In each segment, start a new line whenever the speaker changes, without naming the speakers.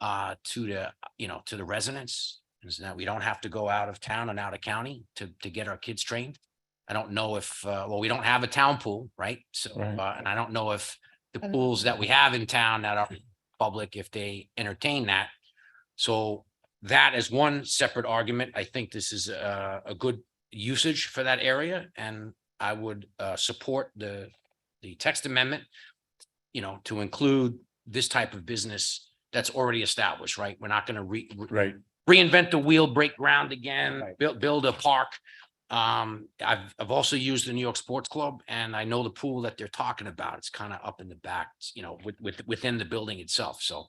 uh, to the, you know, to the residents. Is that we don't have to go out of town and out of county to, to get our kids trained. I don't know if, uh, well, we don't have a town pool, right? So,
Right.
uh, and I don't know if the
I don't-
pools that we have in town that are public, if they entertain that. So that is one separate argument. I think this is a, a good usage for that area and I would, uh, support the, the text amendment. You know, to include this type of business that's already established, right? We're not gonna re, re-
Right,
reinvent the wheel, break ground again,
Right.
build, build a park. Um, I've, I've also used the New York Sports Club and I know the pool that they're talking about. It's kind of up in the back, you know, with, with, within the building itself. So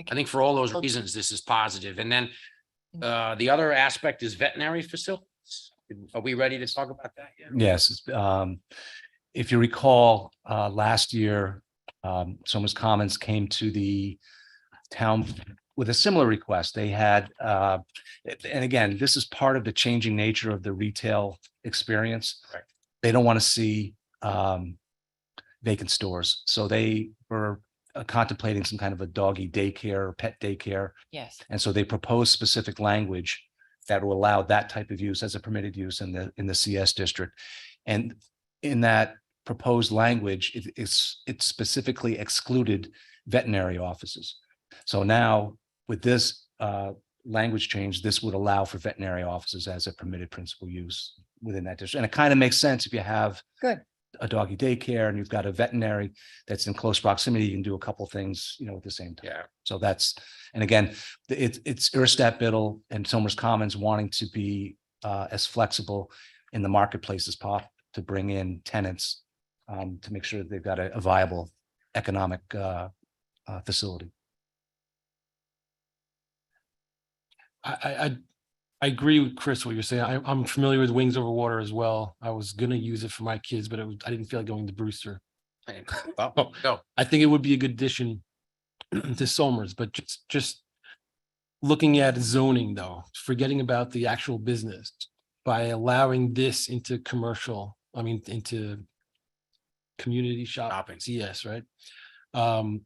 I
Okay.
think for all those
Okay.
reasons, this is positive. And then uh, the other aspect is veterinary facilities. Are we ready to talk about that? yet?
yes, it's, um, if you recall, uh, last year, um, Soma's Commons came to the town with a similar request. They had, uh, and again, this is part of the changing nature of the retail experience.
Correct.
They don't want to see, um, vacant stores, so they were uh, contemplating some kind of a doggy daycare, or pet daycare.
Yes,
And so they propose specific language that will allow that type of use as a permitted use in the, in the CS district. And in that proposed language, it, it's, it specifically excluded veterinary offices. So now with this, uh, language change, this would allow for veterinary offices as a permitted principal use within that district. And it kind of makes sense if you have
Good.
a doggy daycare and you've got a veterinary that's in close proximity, you can do a couple things, you know, at the same time.
Yeah,
So that's, and again, th- it, it's Erstat Biddle and Somers Commons wanting to be uh, as flexible in the marketplace as possible to bring in tenants um, to make sure that they've got a a viable economic uh, uh, facility.
I, I, I, I agree with Chris, what you're saying. I, I'm familiar with Wings Over Water as well. I was gonna use it for my kids, but it was, I didn't feel like going to Brewster.
Hey, well, go.
I think it would be a good addition to Somers, but just, just looking at zoning though, forgetting about the actual business by allowing this into commercial, I mean, into community shop,
Shopping.
yes, right? Um,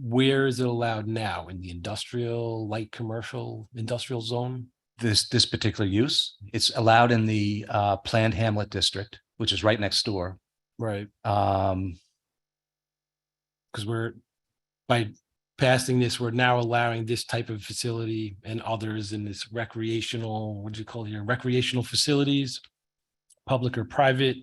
where is it allowed now? In the industrial, light commercial, industrial zone?
This, this particular use, it's allowed in the uh, Planned Hamlet District, which is right next door.
Right.
Um,
Because we're, by passing this, we're now allowing this type of facility and others in this recreational, what do you call it here, recreational facilities, public or private,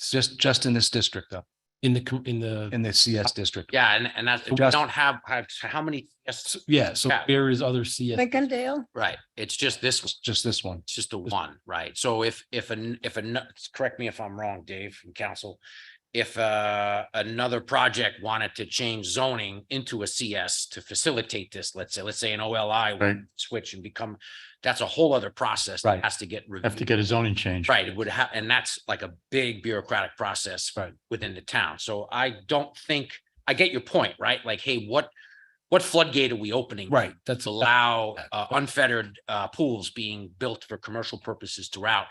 Just, just in this district, though,
in the, com- in the,
in the CS district.
Yeah, and, and that's, we
Just-
don't have, have- how many, yes,
yeah, so
Yeah.
there is other CS,
Lincolndale,
right? It's just this one.
It's Just this one.
It's just the one, right? So if, if, an if, an correct me if I'm wrong, Dave and council. If, uh, another project wanted to change zoning into a CS to facilitate this, let's say, let's say an OLI
Right.
would switch and become, that's a whole other process. that
Right.
Has to get
Have to
reviewed.
get a zoning change.
Right, it would have, and that's like a big bureaucratic process
Right.
within the town. So I don't think, I get your point, right? Like, hey, what, what floodgate are we opening?
right, that's,
to allow uh, unfettered uh, pools being built for commercial purposes throughout.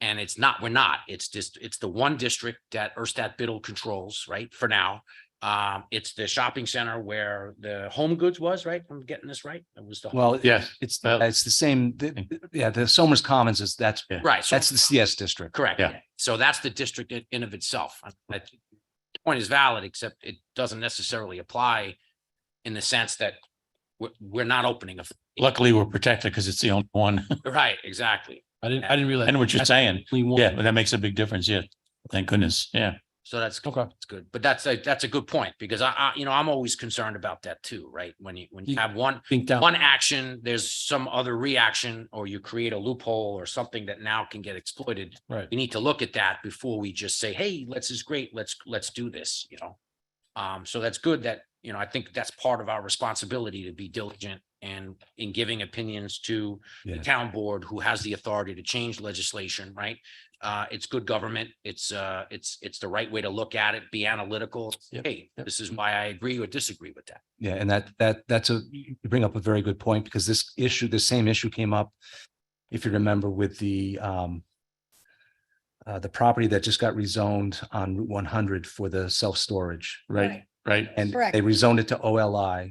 And it's not, we're not, it's just, it's the one district that Erstat Biddle controls, right, for now. Um, It's the shopping center where the Home Goods was, right? I'm getting this right? It was the,
Well,
Yes,
it's,
Well-
it's the same, th- th- yeah, the Somers Commons is, that's,
Yeah.
right, so,
that's the CS district.
correct.
Yeah.
So that's the district in- in of itself. I- I think the Point is valid, except it doesn't necessarily apply in the sense that we're, we're not opening a,
luckily we're protected because it's the only one.
right, exactly.
I didn't, I didn't realize.
I know what you're
that's
saying.
only one.
Yeah, but that makes a big difference. Yeah. Thank goodness. Yeah.
So that's
Okay,
It's good, but that's a, that's a good point, because I, I, you know, I'm always concerned about that too, right? When you, when you
You-
have one,
think down,
one action, there's some other reaction, or you create a loophole or something that now can get exploited.
right,
We need to look at that before we just say, hey, let's is great, let's, let's do this, you know? Um, so that's good that, you know, I think that's part of our responsibility to be diligent and in giving opinions to the
Yeah.
town board who has the authority to change legislation, right? Uh, it's good government. It's, uh, it's, it's the right way to look at it, be analytical.
Yep,
Hey,
yep. Mm-hmm.
this is why I agree or disagree with that.
Yeah, and that, that, that's a, you bring up a very good point because this issue, the same issue came up, if you remember, with the, um, uh, the property that just got rezoned on Route one hundred for the self-storage.
Right, right.
And
Correct.
they rezoned it to OLI.